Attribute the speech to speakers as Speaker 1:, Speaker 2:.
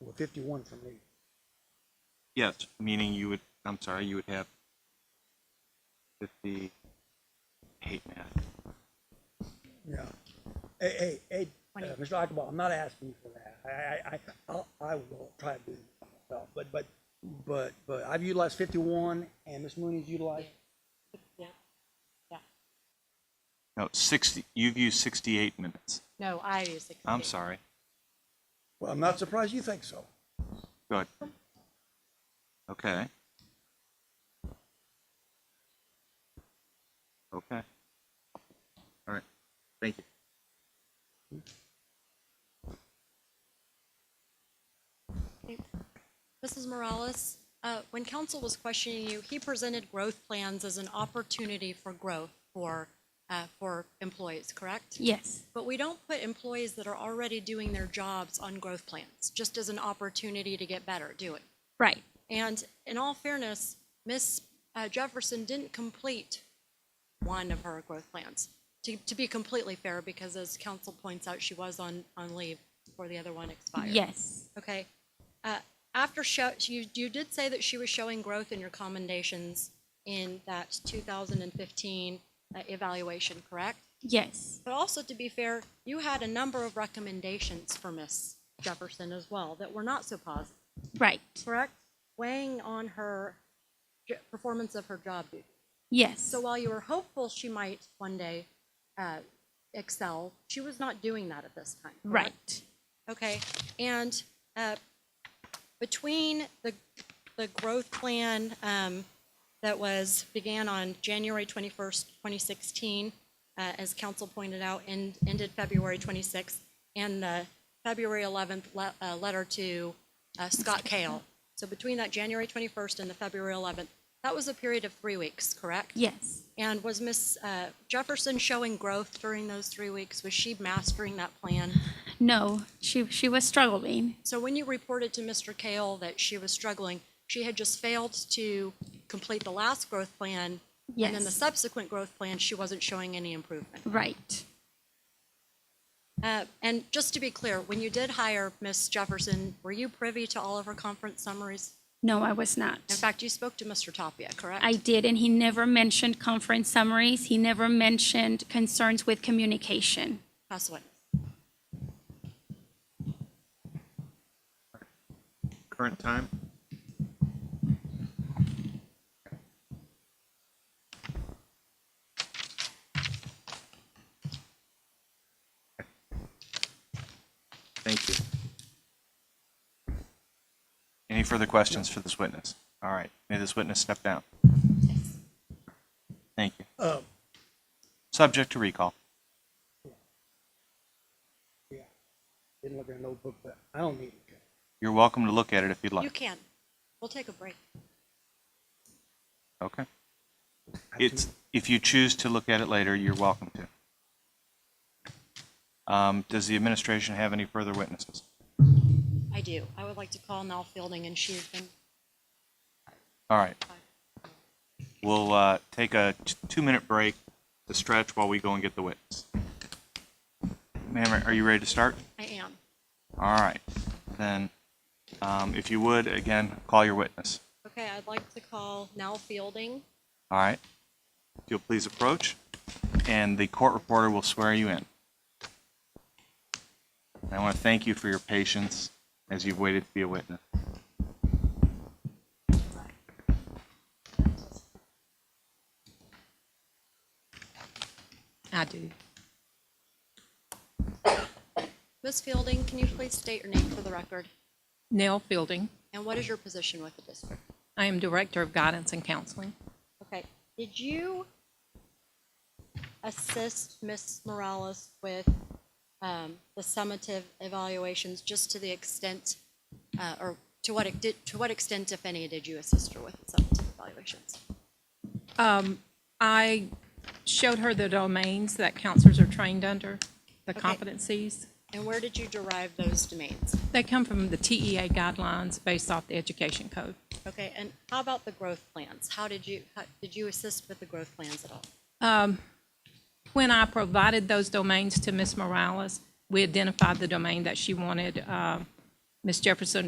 Speaker 1: Well, fifty-one from me.
Speaker 2: Yes, meaning you would, I'm sorry, you would have fifty, I hate math.
Speaker 1: No. Hey, hey, hey, uh, Mr. Eichelbaum, I'm not asking you for that. I, I, I, I'll- I will try to do it myself, but, but, but, but I've utilized fifty-one and Ms. Mooney's utilized,
Speaker 3: Yeah,
Speaker 2: No, sixty, you've used sixty-eight minutes.
Speaker 3: no, I use sixty.
Speaker 2: I'm sorry.
Speaker 1: well, I'm not surprised you think so.
Speaker 2: Go ahead. Okay. Okay. All right, thank you.
Speaker 4: Mrs. Morales, uh, when council was questioning you, he presented growth plans as an opportunity for growth for, uh, for employees, correct?
Speaker 5: Yes,
Speaker 4: But we don't put employees that are already doing their jobs on growth plans, just as an opportunity to get better, do it.
Speaker 5: right.
Speaker 4: And in all fairness, Ms. uh, Jefferson didn't complete one of her growth plans. To, to be completely fair, because as council points out, she was on, on leave before the other one expired.
Speaker 5: Yes,
Speaker 4: Okay. Uh, After show, you, you did say that she was showing growth in your commendations in that 2015 uh, evaluation, correct?
Speaker 5: yes,
Speaker 4: But also, to be fair, you had a number of recommendations for Miss Jefferson as well that were not so positive,
Speaker 5: right.
Speaker 4: correct? Weighing on her j- performance of her job duties.
Speaker 5: Yes,
Speaker 4: So while you were hopeful she might one day uh, excel, she was not doing that at this time. correct?
Speaker 5: right.
Speaker 4: Okay, and uh, between the, the growth plan um, that was, began on January 21st, 2016, uh, as council pointed out, and ended February 26th, and the February 11th le- uh, letter to uh, Scott Kale. So between that January 21st and the February 11th, that was a period of three weeks, correct?
Speaker 5: Yes,
Speaker 4: And was Miss uh, Jefferson showing growth during those three weeks? Was she mastering that plan?
Speaker 5: no. She she was struggling.
Speaker 4: So when you reported to Mr. Kale that she was struggling, she had just failed to complete the last growth plan. And then the
Speaker 5: Yes.
Speaker 4: subsequent growth plan, she wasn't showing any improvement.
Speaker 5: Right.
Speaker 4: Uh, And just to be clear, when you did hire Ms. Jefferson, were you privy to all of her conference summaries?
Speaker 5: No, I was not.
Speaker 4: In fact, you spoke to Mr. Tapia, correct?
Speaker 5: I did, and he never mentioned conference summaries. He never mentioned concerns with communication.
Speaker 4: Pass the witness.
Speaker 2: Current time? Thank you. Any further questions for this witness? All right, may this witness step down? Thank you.
Speaker 1: Um,
Speaker 2: Subject to recall.
Speaker 1: yeah, didn't look at a notebook, but I don't need it.
Speaker 2: You're welcome to look at it if you'd
Speaker 4: You
Speaker 2: like.
Speaker 4: can. We'll take a break.
Speaker 2: Okay.
Speaker 1: I have too
Speaker 2: It's, if you choose to look at it later, you're welcome to. Um, Does the administration have any further witnesses?
Speaker 4: I do. I would like to call Nell Fielding, and she's been
Speaker 2: All right. We'll uh, take a t- two-minute break to stretch while we go and get the witness. Ma'am, are you ready to start?
Speaker 4: I am.
Speaker 2: All right. Then, um, if you would, again, call your witness.
Speaker 4: Okay, I'd like to call Nell Fielding.
Speaker 2: All right? If you'll please approach, and the court reporter will swear you in. And I want to thank you for your patience as you've waited to be a witness.
Speaker 3: I do.
Speaker 4: Ms. Fielding, can you please state your name for the record?
Speaker 3: Nell Fielding.
Speaker 4: And what is your position with the district?
Speaker 3: I am Director of Guidance and Counseling.
Speaker 4: Okay, did you assist Ms. Morales with um, the summative evaluations just to the extent, uh, or to what, ex- did- to what extent, if any, did you assist her with the summative evaluations?
Speaker 3: I showed her the domains that counselors are trained under, the
Speaker 4: Okay.
Speaker 3: competencies.
Speaker 4: And where did you derive those domains?
Speaker 3: They come from the TEA guidelines based off the education code.
Speaker 4: Okay, and how about the growth plans? How did you, how- did you assist with the growth plans at all?
Speaker 3: When I provided those domains to Ms. Morales, we identified the domain that she wanted uh, Ms. Jefferson